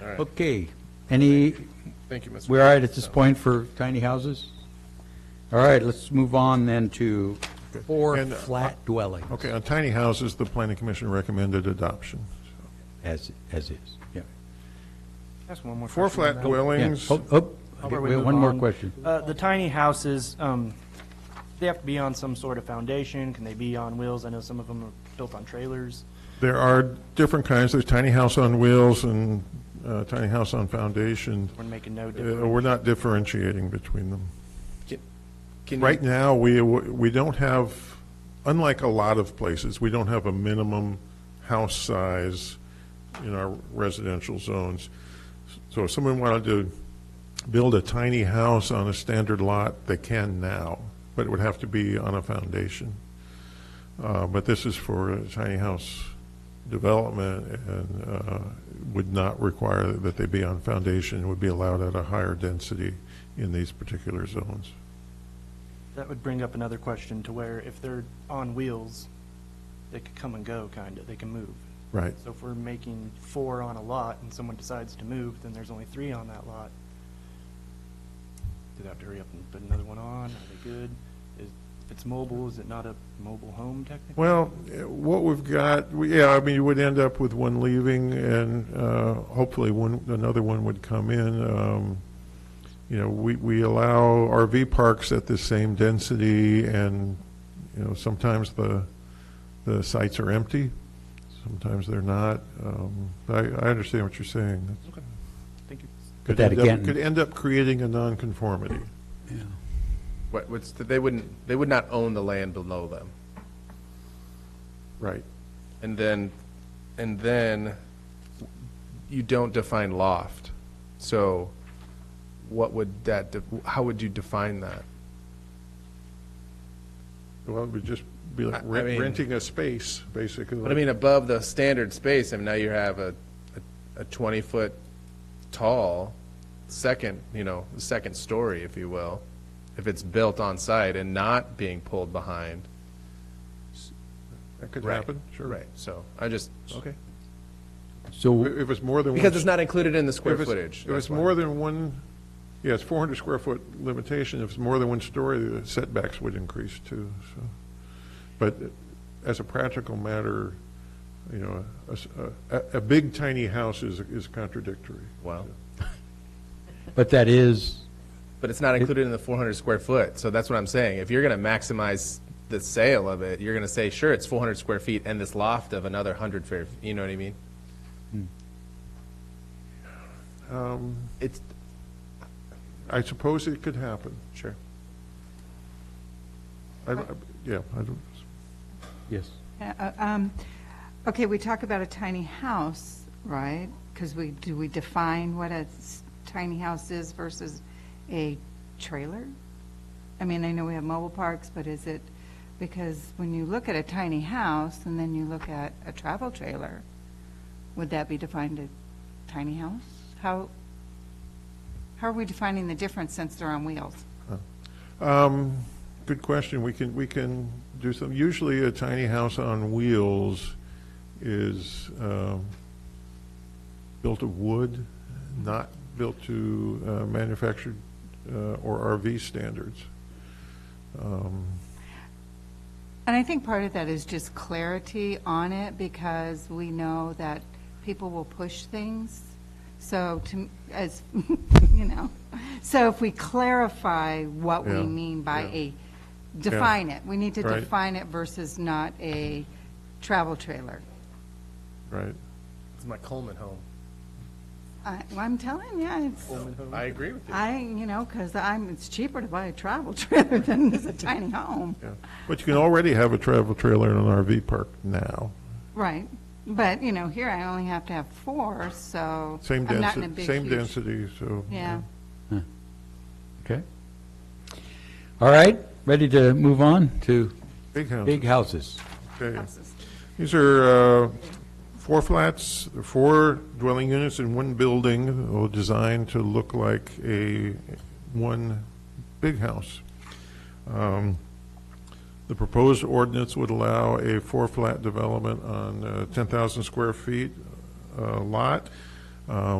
All right. Okay, any, Thank you, Mr. we're all right at this point for tiny houses? All right, let's move on then to four And, uh, flat dwellings, Okay, on tiny houses, the planning commission recommended adoption. as, as is, yeah. Ask one more Four question flat on that. Yeah. dwellings, Oh, oh, Before we wait, move one more on, question. uh, The tiny houses, um, they have to be on some sort of foundation, can they be on wheels? I know some of them are built on trailers. there are different kinds, there's tiny house on wheels and uh, tiny house on foundation. We're making no Uh, difference. We're not differentiating between them. Can Right now, we, we don't have, unlike a lot of places, we don't have a minimum house size in our residential zones. So if someone wanted to build a tiny house on a standard lot, they can now, but it would have to be on a foundation. Uh, But this is for a tiny house development and uh, would not require that they be on foundation, would be allowed at a higher density in these particular zones. That would bring up another question to where if they're on wheels, they could come and go, kind of, they can move. Right. So if we're making four on a lot and someone decides to move, then there's only three on that lot. Do they have to hurry up and put another one on? Are they good? Is- If it's mobile, is it not a mobile home technically? Well, eh, what we've got, we- yeah, I mean, you would end up with one leaving, and uh, hopefully one, another one would come in. Um, You know, we, we allow RV parks at the same density, and, you know, sometimes the, the sites are empty, sometimes they're not. Um, I, I understand what you're saying. Thank you. But Could that end up- again- Could end up creating a nonconformity. What, what's, the- they wouldn't, they would not own the land below them. Right. And then, and then you don't define loft. So what would that, de- how would you define that? Well, it would just be like I- I rent- mean- renting a space, basically. But I mean, above the standard space, I mean, now you have a, a twenty-foot tall second, you know, second story, if you will, if it's built on site and not being pulled behind. That could Right, happen, sure. Right, so I just, Okay. So, If it's more than one. because it's not included in the If square it's- footage. If that's it's why. more than one, yeah, it's 400 square foot limitation, if it's more than one story, the setbacks would increase too, so. But as a practical matter, you know, a s- a, a- a big tiny house is, is contradictory. Wow. but that is, But it's not included in the four hundred square foot, so that's what I'm saying. If you're gonna maximize the sale of it, you're gonna say, sure, it's four hundred square feet and this loft of another hundred fair, you know what I mean? Um, It's, I suppose it could happen. sure. I, I- yeah, I don't, yes. Uh, uh, um, Okay, we talk about a tiny house, right? Because we, do we define what a s- tiny house is versus a trailer? I mean, I know we have mobile parks, but is it, because when you look at a tiny house and then you look at a travel trailer, would that be defined a tiny house? How, how are we defining the difference since they're on wheels? Um, Good question. We can, we can do some, usually a tiny house on wheels is um, built of wood, not built to uh, manufactured uh, or RV standards. Um, And I think part of that is just clarity on it because we know that people will push things. So to, m- as, you know, so if we clarify what Yeah, we mean by yeah. a, define it. We need to Right. define it versus not a travel trailer. Right. It's my Coleman home. I, well, I'm telling you, it's, I agree with you. I, you know, because I'm, it's cheaper to buy a travel trailer than it is a tiny home. Yeah. But you can already have a travel trailer in an RV park now. Right, but, you know, here I only have to have four, so. Same I'm not in a density, big, same huge- density, so. Yeah. Okay. All right, ready to move on to Big house. big houses. Okay. These are uh, four flats, four dwelling units in one building, all designed to look like a, one big house. Um, The proposed ordinance would allow a four-flat development on uh, 10,000 square feet uh, lot. Um,